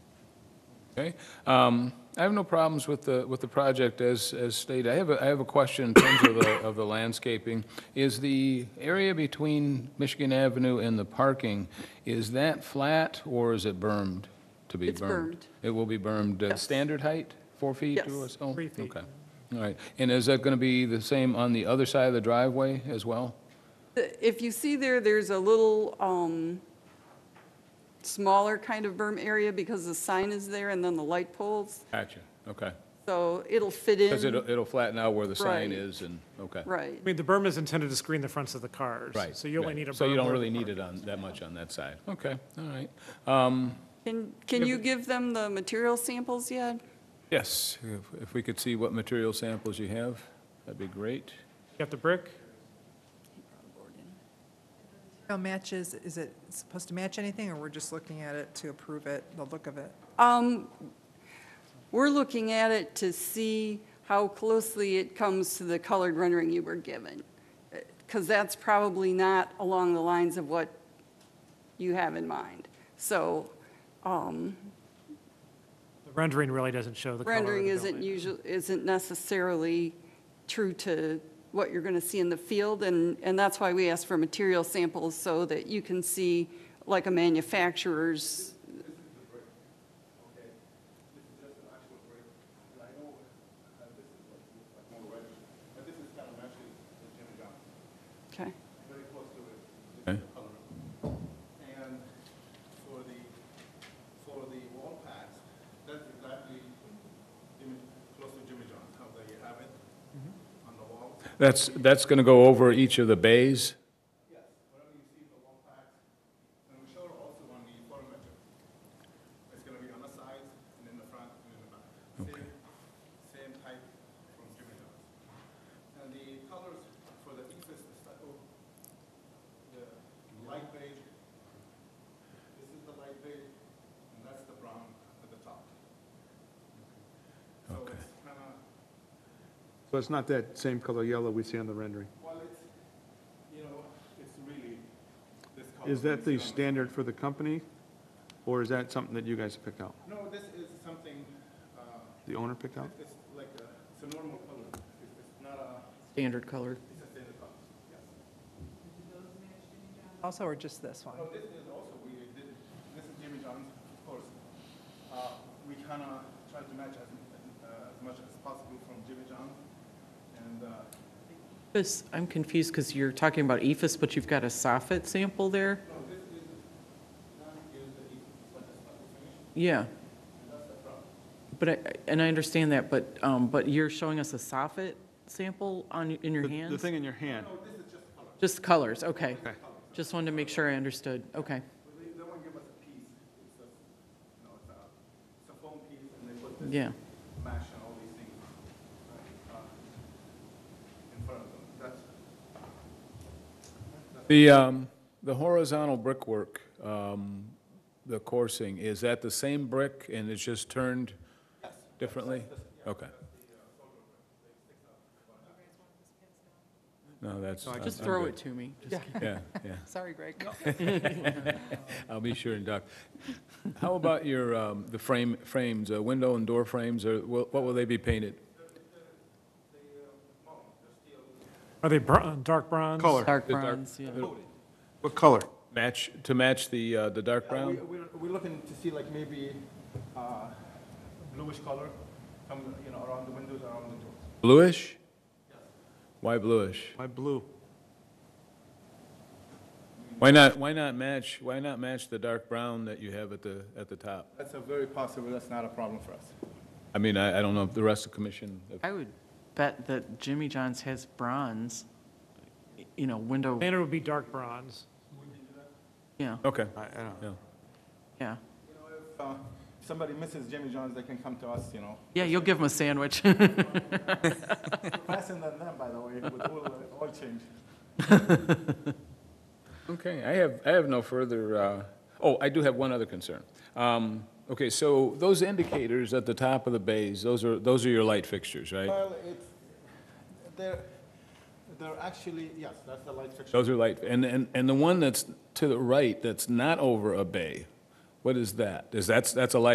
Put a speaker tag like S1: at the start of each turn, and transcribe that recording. S1: Okay. Um, I have no problems with the, with the project as, as stated. I have, a I have a question in terms of the, of the landscaping. Is the area between Michigan Avenue and the parking, is that flat or is it bermed to be bermed?
S2: It's bermed.
S1: It will be bermed, uh,
S2: Yes.
S1: standard height, four feet
S2: Yes.
S1: or so?
S3: Three feet.
S1: Okay. All right. And is that going to be the same on the other side of the driveway as well?
S2: The- If you see there, there's a little um, smaller kind of berm area because the sign is there and then the light poles,
S1: Gotcha. Okay.
S2: so it'll fit in.
S1: Because it'll, it'll flatten out where the sign
S2: Right.
S1: is and, okay.
S2: Right.
S3: I mean, the berm is intended to screen the fronts of the cars.
S1: Right.
S3: So you only
S1: right.
S3: need a berm.
S1: So you don't
S3: where
S1: really
S3: the
S1: need
S3: car-
S1: it on, that much on that side. Okay, all right. Um,
S2: Can, can you give them the material samples yet?
S1: Yes, if- if we could see what material samples you have, that'd be great.
S3: You got the brick?
S4: Now matches, is it supposed to match anything, or we're just looking at it to approve it, the look of it?
S2: Um, We're looking at it to see how closely it comes to the colored rendering you were given, because that's probably not along the lines of what you have in mind. So um,
S3: The rendering really doesn't show the color of the
S2: rendering isn't
S3: building.
S2: usually, isn't necessarily true to what you're going to see in the field, and, and that's why we ask for material samples, so that you can see like a manufacturer's, okay?
S5: And for the, for the wall packs, that's exactly Jimmy, close to Jimmy John's, how that you have it on the wall.
S1: That's, that's going to go over each of the bays?
S5: Yes. Whatever you see in the wall packs, and we show also on the photometric. It's gonna be on the sides, and in the front, and in the back. Same, same type from Jimmy John's. And the colors for the Ephes, the stucco, the
S6: Mm-hmm.
S5: light beige, this is the light beige, and that's the brown at the top. So it's kinda,
S6: So it's not that same color yellow we see on the rendering?
S5: well, it's, you know, it's really this color.
S6: Is that the
S5: you see on
S6: standard for the company, or is that something that you guys picked out?
S5: No, this is something, uh,
S6: The owner picked out?
S5: it's like a, it's a normal color. It's it's not a,
S7: Standard color.
S5: it's a standard color. Yes.
S4: Also, or just this one?
S5: No, this is also, we did, this is Jimmy John's, of course. Uh, We kind of tried to match as, uh, as much as possible from Jimmy John's. And uh,
S7: This, I'm confused because you're talking about EFS, but you've got a soffit sample there? Yeah. But I, and I understand that, but, um, but you're showing us a soffit sample on, in your
S6: The- The
S7: hands?
S6: thing in your hand,
S7: Just colors, okay. Just wanted to make sure I understood, okay.
S5: they, they won't give us a piece. It's a, you know, it's a, it's a foam piece and they put this
S7: Yeah,
S5: mash and all these things uh, in front of them. That's,
S1: The, um, the horizontal brickwork, um, the coursing, is that the same brick and it's just turned differently? Okay. No, that's. uh, I'm-
S7: just
S1: I'm
S7: throw
S1: good.
S7: it to me. Just kidding.
S1: Yeah, yeah.
S4: Sorry, Greg.
S1: I'll be sure and duck. How about your, um, the frame, frames, uh, window and door frames, or wha- what will they be painted?
S3: Are they bro- dark bronze?
S6: Color.
S7: Dark
S1: The dark-
S7: bronze, yeah.
S6: what color?
S1: Match, to match the, uh, the dark
S5: Yeah, we-
S1: brown?
S5: We're, we're looking to see like maybe uh, bluish color come, you know, around the windows, around the doors.
S1: Bluish? Why bluish?
S6: Why blue?
S1: Why not, why not match, why not match the dark brown that you have at the, at the top?
S5: That's a very possible, that's not a problem for us.
S1: I mean, I, I don't know if the rest of the commission, if-
S7: I would bet that Jimmy John's has bronze, you know, window,
S3: Banner would be dark bronze.
S7: yeah,
S1: okay,
S6: I, I don't know.
S1: yeah.
S7: yeah.
S5: You know, if uh, somebody misses Jimmy John's, they can come to us, you know.
S7: Yeah, you'll give him a sandwich.
S5: Faster than them, by the way, with oil, uh, oil change.
S1: Okay, I have, I have no further, uh, oh, I do have one other concern. Um, Okay, so those indicators at the top of the bays, those are, those are your light fixtures, right?
S5: Well, it's, they're, they're actually, yes, that's the light fixture.
S1: Those are light, and, and, and the one that's to the right, that's not over a bay, what is that? Is that's, that's a light